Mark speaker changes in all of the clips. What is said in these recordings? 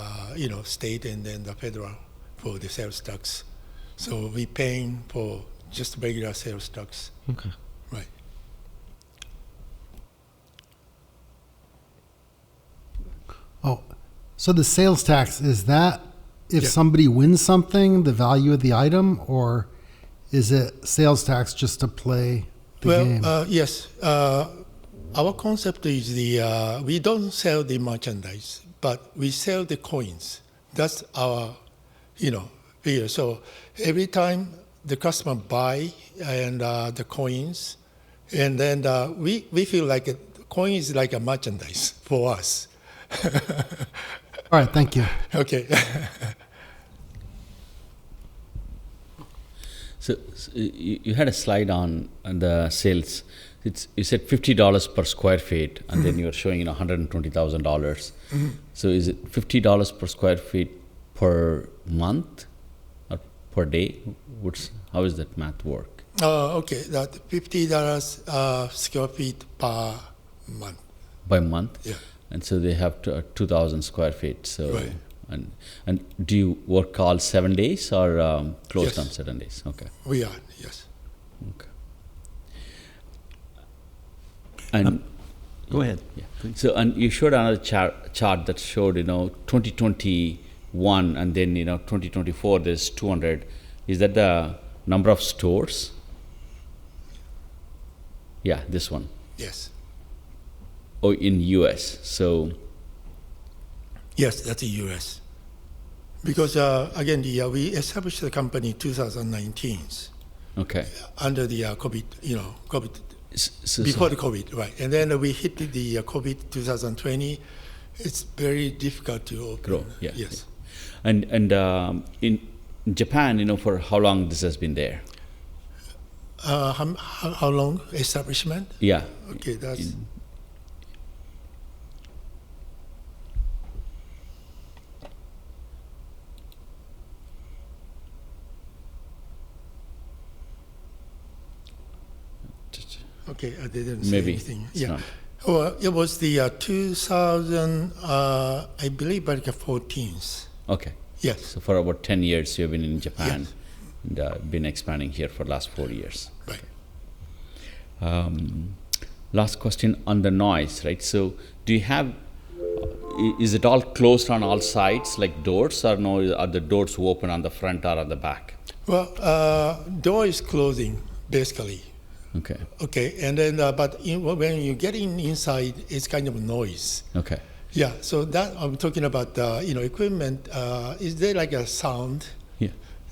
Speaker 1: uh, you know, state and then the federal for the sales tax. So we paying for just regular sales tax,
Speaker 2: Okay.
Speaker 1: right?
Speaker 3: Oh, so the sales tax is that if
Speaker 1: Yeah.
Speaker 3: somebody wins something, the value of the item, or is it sales tax just to play the
Speaker 1: well,
Speaker 3: game?
Speaker 1: Uh, yes. Uh, our concept is the uh, we don't sell the merchandise, but we sell the coins. That's our, you know, figure. So every time the customer buy and uh, the coins, and then uh, we we feel like a, coin is like a merchandise for us.
Speaker 3: All right, thank you.
Speaker 1: Okay.
Speaker 2: So, so you, you had a slide on on the sales. It's you said fifty dollars per square feet, and then you were showing you know one hundred and twenty thousand dollars. So is it fifty dollars per square feet per month or per day? What's how is that math work?
Speaker 1: uh, okay. That fifty dollars uh, square feet per month.
Speaker 2: By month,
Speaker 1: Yeah.
Speaker 2: and so they have to, uh, two thousand square feet. So
Speaker 1: Right.
Speaker 2: and and do you work all seven days or um, closed
Speaker 1: Yes.
Speaker 2: on seven days? Okay.
Speaker 1: We are yes.
Speaker 2: Okay. And
Speaker 4: Go ahead.
Speaker 2: yeah. So and you showed another chart, chart that showed you know 2021 and then you know 2024 there's 200. Is that the number of stores? Yeah, this one.
Speaker 1: Yes.
Speaker 2: Oh, in US. So
Speaker 1: Yes, that's the U.S. Because uh, again, the, uh, we established the company 2019
Speaker 2: okay.
Speaker 1: under the uh, COVID, you know, COVID
Speaker 2: S- so- so-
Speaker 1: before the COVID, right? And then we hit the uh, COVID 2020. It's very difficult to open.
Speaker 2: Grow, yeah,
Speaker 1: Yes.
Speaker 2: and and um, in in Japan, you know, for how long this has been there?
Speaker 1: Uh, how, how, how long establishment?
Speaker 2: Yeah.
Speaker 1: Okay, that's okay. I didn't say
Speaker 2: Maybe.
Speaker 1: anything.
Speaker 2: It's
Speaker 1: Yeah.
Speaker 2: not-
Speaker 1: Well, it was the uh, 2000, uh, I believe, like 14th.
Speaker 2: Okay.
Speaker 1: Yes.
Speaker 2: So for about 10 years you've been in Japan
Speaker 1: Yes.
Speaker 2: and uh, been expanding here for the last 4 years.
Speaker 1: Right.
Speaker 2: Um, last question on the noise, right? So do you have i- is it all closed on all sides like doors or no are the doors open on the front or on the back?
Speaker 1: Well, uh, door is closing basically.
Speaker 2: Okay.
Speaker 1: Okay, and then uh, but in, when you get in inside, it's kind of noise.
Speaker 2: Okay.
Speaker 1: Yeah, so that I'm talking about. Uh, you know, equipment. Uh, is there like a sound,
Speaker 2: Yeah.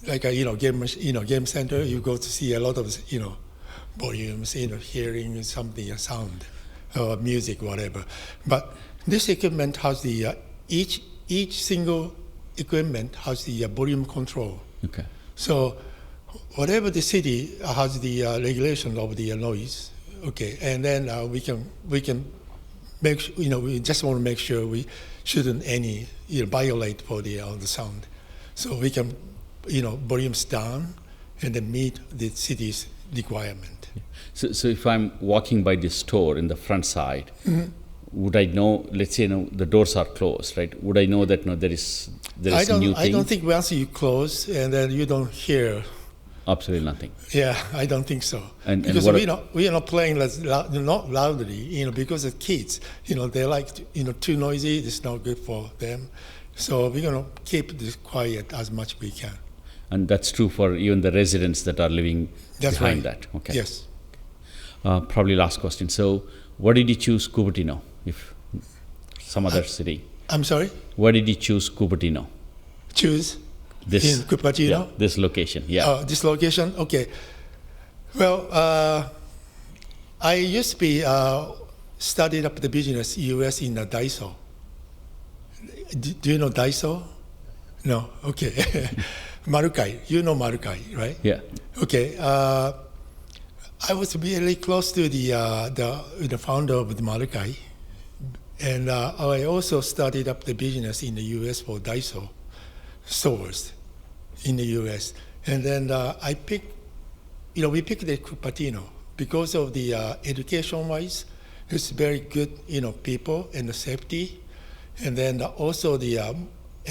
Speaker 1: like a you know game mach- you know game center? You go to see a lot of you know volumes, you know, hearing something, a sound, or music, whatever. But this equipment has the uh, each each single equipment has the uh, volume control.
Speaker 2: Okay.
Speaker 1: So, whatever the city has the uh, regulation of the noise, okay, and then uh, we can we can make su- you know we just want to make sure we shouldn't any you know, violate for the uh, the sound, so we can you know volumes down and then meet the city's requirement.
Speaker 2: So, so if I'm walking by this store in the front side,
Speaker 1: Mm-hmm.
Speaker 2: would I know? Let's say you know, the doors are closed, right? Would I know that no, there is there
Speaker 1: I
Speaker 2: is
Speaker 1: don't
Speaker 2: new
Speaker 1: I
Speaker 2: thing?
Speaker 1: don't think once you close and then you don't hear.
Speaker 2: Absolutely nothing.
Speaker 1: Yeah, I don't think so.
Speaker 2: And- and
Speaker 1: because
Speaker 2: what-
Speaker 1: we not we are not playing as loud, not loudly, you know, because the kids, you know, they like to, you know too noisy. It's not good for them. So we're gonna keep this quiet as much we can.
Speaker 2: And that's true for even the residents that are living
Speaker 1: That's
Speaker 2: behind
Speaker 1: right.
Speaker 2: that. Okay.
Speaker 1: Yes.
Speaker 2: Uh, probably last question. So, why did you choose Cupertino? If some other city,
Speaker 1: I'm sorry.
Speaker 2: why did you choose Cupertino?
Speaker 1: Choose
Speaker 2: This
Speaker 1: in Cupertino.
Speaker 2: yeah, this location. Yeah.
Speaker 1: Uh, this location. Okay. Well, uh, I used to be uh, studied up the business U.S. in the Daiso. Do, do you know Daiso? No. Okay. Marukai. You know Marukai, right?
Speaker 2: yeah.
Speaker 1: Okay. Uh, I was really close to the uh, the, the founder of the Marukai, and uh, I also started up the business in the U.S. for Daiso stores in the U.S. And then uh, I picked, you know, we picked the Cupertino because of the uh, education-wise, it's very good, you know, people and the safety, and then also the um,